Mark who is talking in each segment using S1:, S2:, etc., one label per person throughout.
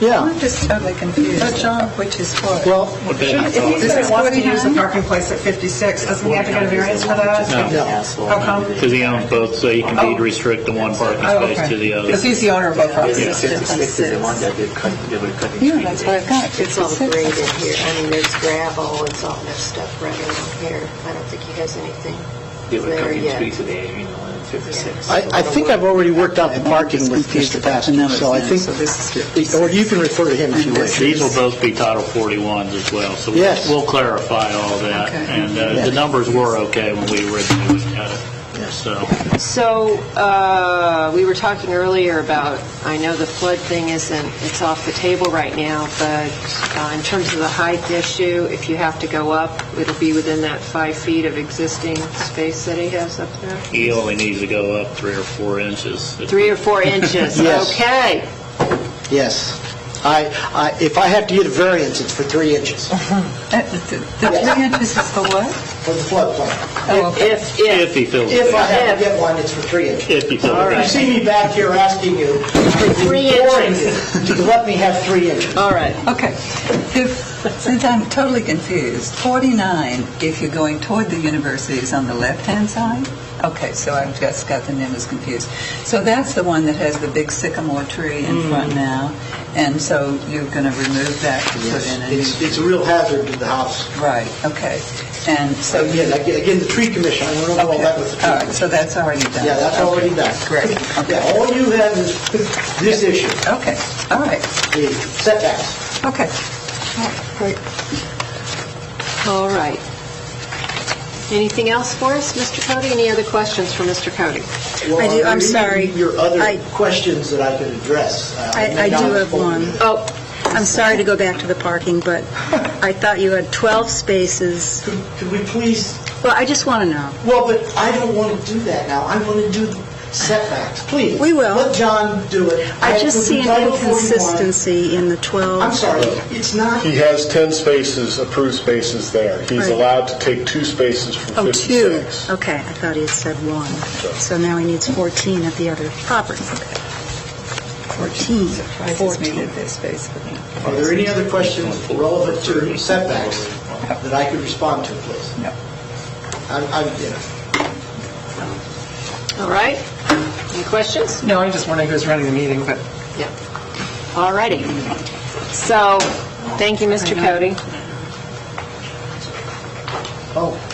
S1: Yeah.
S2: I'm just totally confused.
S3: But, John-
S2: Which is what?
S1: Well,
S3: If he
S2: This
S3: said
S2: is
S3: he wants to use the
S2: 49?
S3: parking place at 56, doesn't he have to get a variance for that?
S4: No.
S3: How come?
S5: Because he owns both, so you can
S2: Oh.
S5: deed restrict the one parking
S3: Oh,
S5: space to
S3: okay.
S5: the
S3: Because
S5: other.
S3: he's the owner of both properties.
S4: It's fifty-six is the one that they're cutting, they were cutting.
S2: Yeah, that's what I've got.
S6: It's all graded here. I mean, there's gravel, it's all that stuff right around here. I don't think he has anything.
S4: They were
S6: there
S4: cutting
S6: yet.
S4: trees today, you know, in fifty-six.
S1: I, I think I've already worked out the parking with Mr. Pastor, so I think, or you can refer to him if you wish.
S5: These will both be Title 41s as well, so we'll-
S1: Yes.
S5: we'll clarify all that.
S2: Okay.
S5: And uh,
S1: Yeah.
S5: the numbers were okay when we originally looked at it, so.
S6: So, uh, we were talking earlier about, I know the flood thing isn't, it's off the table right now, but uh, in terms of the height issue, if you have to go up, it'll be within that five feet of existing space that he has up there?
S5: He only needs to go up three or four inches.
S6: Three or four inches?
S1: Yes.
S6: Okay.
S1: Yes. I, I, if I have to get a variance, it's for three inches
S2: Uh, The the three inches is the what?
S1: for the floodplain.
S2: Oh, okay.
S6: If,
S5: If
S6: if,
S5: he fills it
S1: If I
S5: out.
S1: have to get one, it's for three inches.
S5: If he fills it
S6: All
S5: out.
S1: If you see me back here asking you,
S6: three
S1: imploring you
S6: inches.
S1: to let me have three inches.
S6: all right.
S2: Okay. If, since I'm totally confused, 49, if you're going toward the university, is on the left-hand side? Okay, so I've just got the numbers confused. So that's the one that has the big sycamore tree
S1: Mm.
S2: in front now, and so you're going to remove that to put in a new...
S1: It's, it's a real hazard to the house.
S2: Right, okay. And so... you-
S1: Again, again, the tree commission, I don't know about Oh, that with the tree.
S2: Okay, All right, so that's already done.
S1: Yeah, that's already done.
S2: Great,
S1: Yeah,
S2: okay.
S1: all you have is this issue,
S2: Okay, all right,
S1: the setbacks.
S2: okay.
S6: All right. Anything else for us, Mr. Cody? Any other questions for Mr. Cody?
S1: Well,
S7: do-
S1: there
S7: I'm
S1: may
S7: sorry.
S1: be Your other
S7: I-
S1: questions that I could address. Uh,
S7: I-
S1: may
S7: I
S1: not
S7: do have
S1: spoken.
S7: one.
S6: Oh,
S7: I'm sorry to go back to the parking, but I thought you had 12 spaces.
S1: Could could we please,
S7: Well, I just want to know.
S1: well, but I don't want to do that now. I want to do setbacks, please.
S7: We will.
S1: Let John do it.
S7: I just see an
S1: Title 41.
S7: inconsistency in the 12.
S1: I'm sorry, it's not,
S8: He has 10 spaces, approved spaces there. He's
S7: Right.
S8: allowed to take two spaces from
S7: Oh, two.
S8: 56.
S7: Okay, I thought he had said one. So now he needs 14 at the other property. 14,
S2: Surprises me that
S7: 14.
S2: there's space for me.
S1: are there any other questions relevant to setbacks that I could respond to, please?
S2: No.
S1: I'm, I'm, you know.
S6: all right. Any questions?
S3: No, I'm just wondering who's running the meeting, but
S6: Yeah. All righty. So, thank you, Mr. Cody.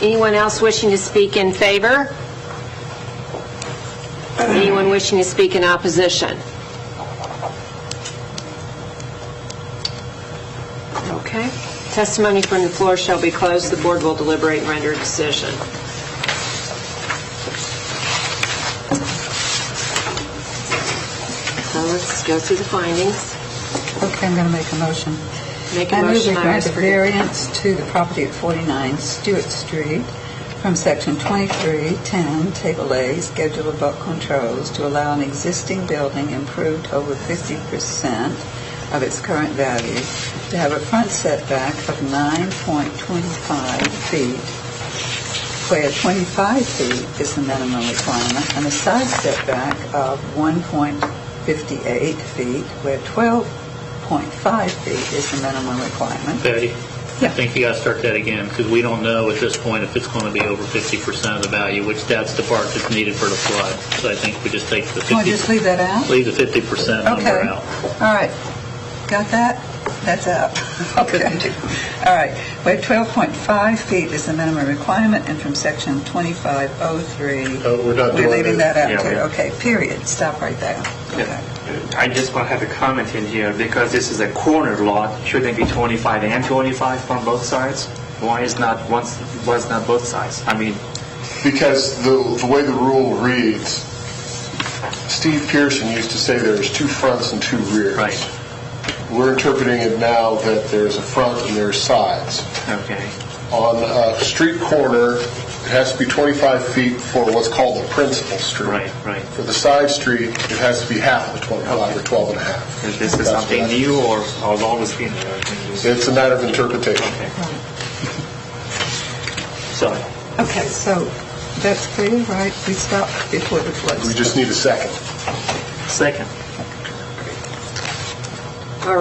S6: Anyone else wishing to speak in favor? Anyone wishing to speak in opposition? Okay. Testimony from the floor shall be closed. The board will deliberate and render a decision. So let's go through the findings.
S2: Okay, I'm going to make a motion.
S6: Make a
S2: I move we
S6: motion, I
S2: grant
S6: always
S2: a
S6: forget.
S2: variance to the property at 49 Stewart Street from Section 2310, Table A, Schedule of Bulk Controls, to allow an existing building improved over 50% of its current value to have a front setback of 9.25 feet, where 25 feet is the minimum requirement, and a side setback of 1.58 feet, where 12 0.5 feet is the minimum requirement.
S5: Patty?
S2: Yeah.
S5: I think you got to start that again, because we don't know at this point if it's going to be over 50% of the value, which that's the part that's needed for the flood. So I think we just take the
S2: Can we just
S5: 50,
S2: leave that out?
S5: leave the 50% number
S2: Okay.
S5: out.
S2: All right. Got that? That's out. Okay. All right. Where 12.5 feet is the minimum requirement, and from section 2503...
S8: Oh, we're not doing
S2: We're leaving
S8: it.
S2: that out,
S9: Yeah,
S2: too.
S9: we-
S2: Okay, period. Stop right there. Okay.
S9: I just want to have a comment in here, because this is a corner lot, shouldn't it be 25 and 25 on both sides? Why is not, one's, why is not both sides? I mean,
S8: Because the, the way the rule reads, Steve Pearson used to say there's two fronts and two rears.
S9: Right.
S8: We're interpreting it now that there's a front and there's sides.
S9: okay,
S8: On a street corner, it has to be 25 feet for what's called the principal street.
S9: Right, right.
S8: For the side street, it has to be half of 25 or 12 and a half.
S9: is this
S8: That's
S9: is something
S8: what I-
S9: new, or has always been there? I think this-
S8: It's a matter of interpretation.
S9: Okay. So,
S2: Okay, so that's clear, right? We stopped before the
S8: We
S2: flood.
S8: just need a second.
S9: second.